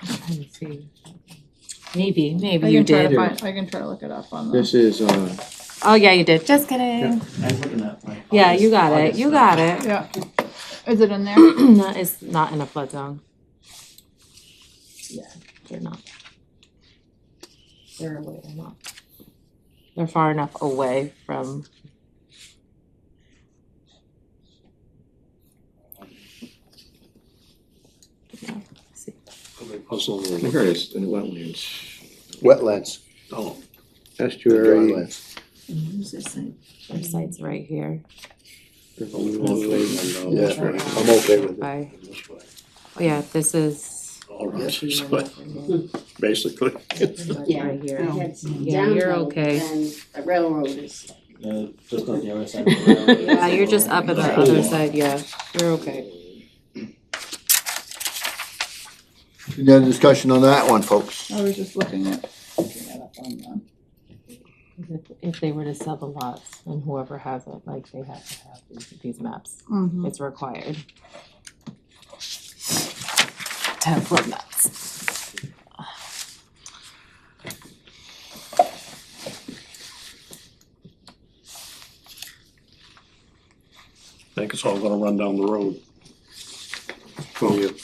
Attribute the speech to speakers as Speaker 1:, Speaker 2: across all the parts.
Speaker 1: and see. Maybe, maybe
Speaker 2: I
Speaker 1: you
Speaker 2: can try to
Speaker 1: did.
Speaker 2: find, I can try to look it up on the,
Speaker 3: This is, uh,
Speaker 1: Oh, yeah, you did. Just kidding.
Speaker 4: I'm looking at my.
Speaker 1: Yeah, you got it. You got it.
Speaker 2: yeah. Is it in there?
Speaker 1: That is not in a flood zone. Yeah, they're not. They're away enough. They're far enough away from. Yeah, see.
Speaker 4: Puzzle.
Speaker 3: here it is, in wetlands.
Speaker 5: Wetlands,
Speaker 4: Oh,
Speaker 5: estuary.
Speaker 1: Where's this site? Their site's right here.
Speaker 5: Yeah,
Speaker 4: this way.
Speaker 5: I'm okay with it.
Speaker 1: By,
Speaker 4: This way.
Speaker 1: oh yeah, this is.
Speaker 4: All right,
Speaker 5: Yes.
Speaker 4: this way, basically.
Speaker 6: Yeah.
Speaker 1: Right here.
Speaker 6: I had some
Speaker 1: Yeah, you're
Speaker 6: downtown
Speaker 1: okay.
Speaker 6: And the railroad is,
Speaker 7: Uh, just on the other side. of the railroad.
Speaker 1: Yeah, you're just up at the other side, yeah, you're okay.
Speaker 5: Any other discussion on that one, folks?
Speaker 2: I was just looking at. looking that up on the-
Speaker 1: If- If they were to sell the lots, and whoever has it, like, they have to have these, these maps,
Speaker 2: Mhm.
Speaker 1: it's required. To have flood maps.
Speaker 4: I think it's all gonna run down the road. From you.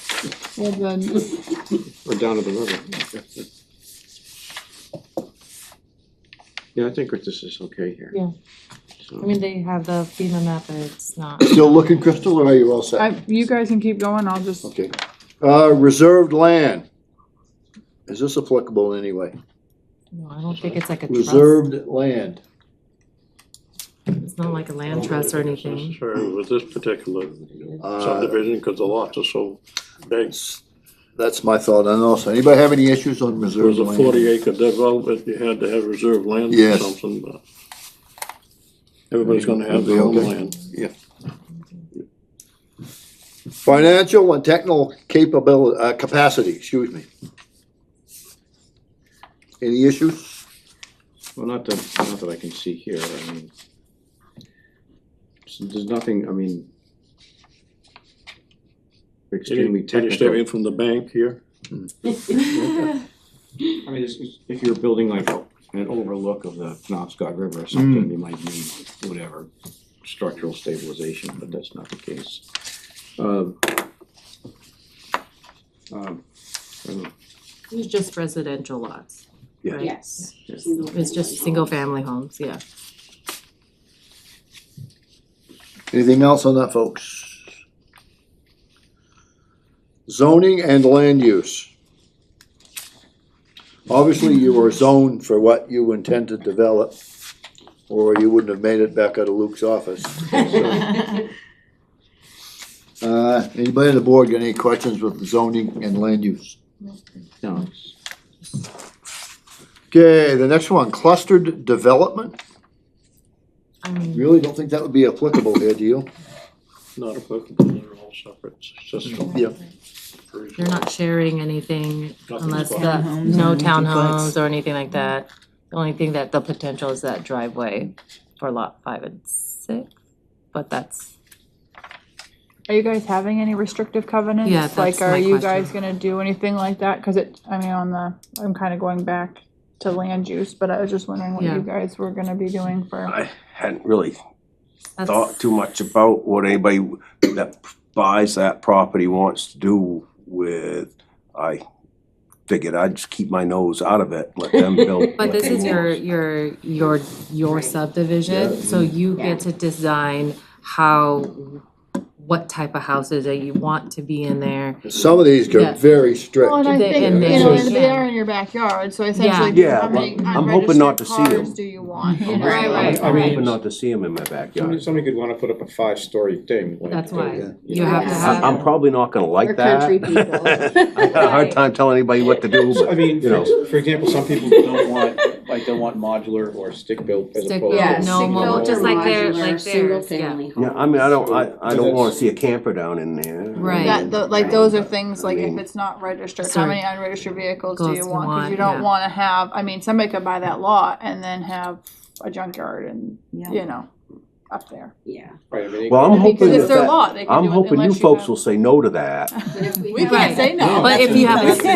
Speaker 2: Well, then,
Speaker 3: Or down to the river. Yeah, I think that this is okay here.
Speaker 1: Yeah.
Speaker 3: So-
Speaker 1: I mean, they have the FEMA map, but it's not.
Speaker 5: Still looking, Crystal, or are you all set?
Speaker 2: I, you guys can keep going, I'll just,
Speaker 5: Okay. Uh, reserved land. Is this applicable in any way?
Speaker 1: No, I don't think it's like a trust,
Speaker 5: Reserved land.
Speaker 1: it's not like a land trust or anything.
Speaker 4: Necessary with this particular
Speaker 5: Uh,
Speaker 4: subdivision, cause the lots are so big.
Speaker 5: That's my thought on also. Anybody have any issues on
Speaker 4: There
Speaker 5: reserved
Speaker 4: was a
Speaker 5: land?
Speaker 4: forty acre development, you had to have reserved land or
Speaker 5: Yes.
Speaker 4: something, but. Everybody's gonna have their own
Speaker 5: Okay.
Speaker 4: land.
Speaker 5: Financial and technical capability, uh, capacity, excuse me. Any issues?
Speaker 3: Well, not that, not that I can see here, I mean. s- There's nothing, I mean. Extremely
Speaker 4: Any
Speaker 3: technical.
Speaker 4: statement from the bank here?
Speaker 3: I mean, it's- it's- if you're building like a- an overlook of the Penobscot River or something, you might need whatever structural stabilization, but that's not the case. Um, um, I don't know.
Speaker 1: It's just residential lots.
Speaker 3: Yeah.
Speaker 1: right?
Speaker 6: yes.
Speaker 3: Yes.
Speaker 1: It's just single family homes, yeah.
Speaker 5: Anything else on that, folks? Zoning and land use. Obviously, you were zoned for what you intend to develop, or you wouldn't have made it back out of Luke's office. Uh, anybody on the board got any questions with zoning and land use?
Speaker 3: No, it's-
Speaker 5: Okay, the next one, clustered development.
Speaker 1: I mean,
Speaker 5: Really don't think that would be applicable here, do you?
Speaker 4: Not applicable, they're all separate, it's just.
Speaker 5: Yeah.
Speaker 1: They're not sharing anything
Speaker 4: Nothing's
Speaker 1: unless uh, the,
Speaker 4: going
Speaker 1: no townhomes or anything like that. The only thing that the potential is that driveway for lot five and six, but that's,
Speaker 2: are you guys having any restrictive covenants?
Speaker 1: Yeah, that's
Speaker 2: Like, are
Speaker 1: my
Speaker 2: you
Speaker 1: question.
Speaker 2: guys gonna do anything like that? Cause it, I mean, on the, I'm kinda going back to land use, but I was just wondering what
Speaker 1: Yeah.
Speaker 2: you guys were gonna be doing for,
Speaker 8: I hadn't really
Speaker 1: that's,
Speaker 8: thought too much about what anybody that buys that property wants to do with. I figured I'd just keep my nose out of it, let them build.
Speaker 1: but
Speaker 8: what
Speaker 1: this
Speaker 8: they
Speaker 1: is
Speaker 8: want.
Speaker 1: your, your, your, your
Speaker 6: Right.
Speaker 1: subdivision, so you
Speaker 6: Yeah.
Speaker 1: get to design how, what type of houses that you want to be in there.
Speaker 5: Some of these
Speaker 1: Yeah.
Speaker 5: are very strict.
Speaker 2: Well, and I
Speaker 1: They-
Speaker 2: think,
Speaker 1: and
Speaker 2: you know,
Speaker 1: they-
Speaker 2: and they are in your backyard, so essentially,
Speaker 8: Yeah,
Speaker 2: how many
Speaker 8: well, I'm hoping
Speaker 2: unregistered
Speaker 8: not to see 'em.
Speaker 2: cars do you want? you know?
Speaker 1: Right, right,
Speaker 8: I'm
Speaker 1: right.
Speaker 8: hoping not to see them in my
Speaker 3: Somebody,
Speaker 8: backyard.
Speaker 3: somebody could wanna put up a five-story thing. like- uh,
Speaker 1: That's
Speaker 5: Yeah.
Speaker 1: why, you have to
Speaker 6: Yeah.
Speaker 8: I'm,
Speaker 1: have,
Speaker 8: I'm probably not gonna
Speaker 6: We're
Speaker 8: like that.
Speaker 6: country people.
Speaker 8: I got a hard time telling anybody what to do,
Speaker 7: I
Speaker 8: but,
Speaker 7: mean,
Speaker 8: you know.
Speaker 7: for example, some people don't want, like, don't want modular or stick-built as
Speaker 1: Stick-built,
Speaker 7: opposed to.
Speaker 1: Yeah,
Speaker 6: Yeah,
Speaker 1: no,
Speaker 6: single
Speaker 1: well,
Speaker 6: or
Speaker 1: just like they're-
Speaker 6: modular,
Speaker 1: like
Speaker 6: single
Speaker 1: theirs, yeah.
Speaker 6: family home.
Speaker 8: Yeah, I mean, I don't, I, I
Speaker 7: So
Speaker 8: don't wanna
Speaker 7: that's-
Speaker 8: see a camper down in there.
Speaker 1: Right.
Speaker 2: Yeah, tho- like those are things, like
Speaker 8: mean-
Speaker 2: if it's not registered, how
Speaker 1: Sorry.
Speaker 2: many unregistered vehicles do
Speaker 1: Goes
Speaker 2: you
Speaker 1: to
Speaker 2: want? Cause
Speaker 1: want,
Speaker 2: you
Speaker 1: yeah.
Speaker 2: don't wanna have, I mean, somebody could buy that lot and then have a junkyard and, you know, up there.
Speaker 6: Yeah.
Speaker 7: Right, I mean, it
Speaker 8: Well, I'm hoping
Speaker 2: Because it's
Speaker 8: that,
Speaker 2: their
Speaker 8: that-
Speaker 2: lot, they can
Speaker 8: I'm
Speaker 2: do it
Speaker 8: hoping you
Speaker 2: unless you
Speaker 8: folks
Speaker 2: have-
Speaker 8: will say no to that.
Speaker 6: But if
Speaker 2: We
Speaker 1: Right.
Speaker 2: can't say no.
Speaker 1: but if you have a
Speaker 8: They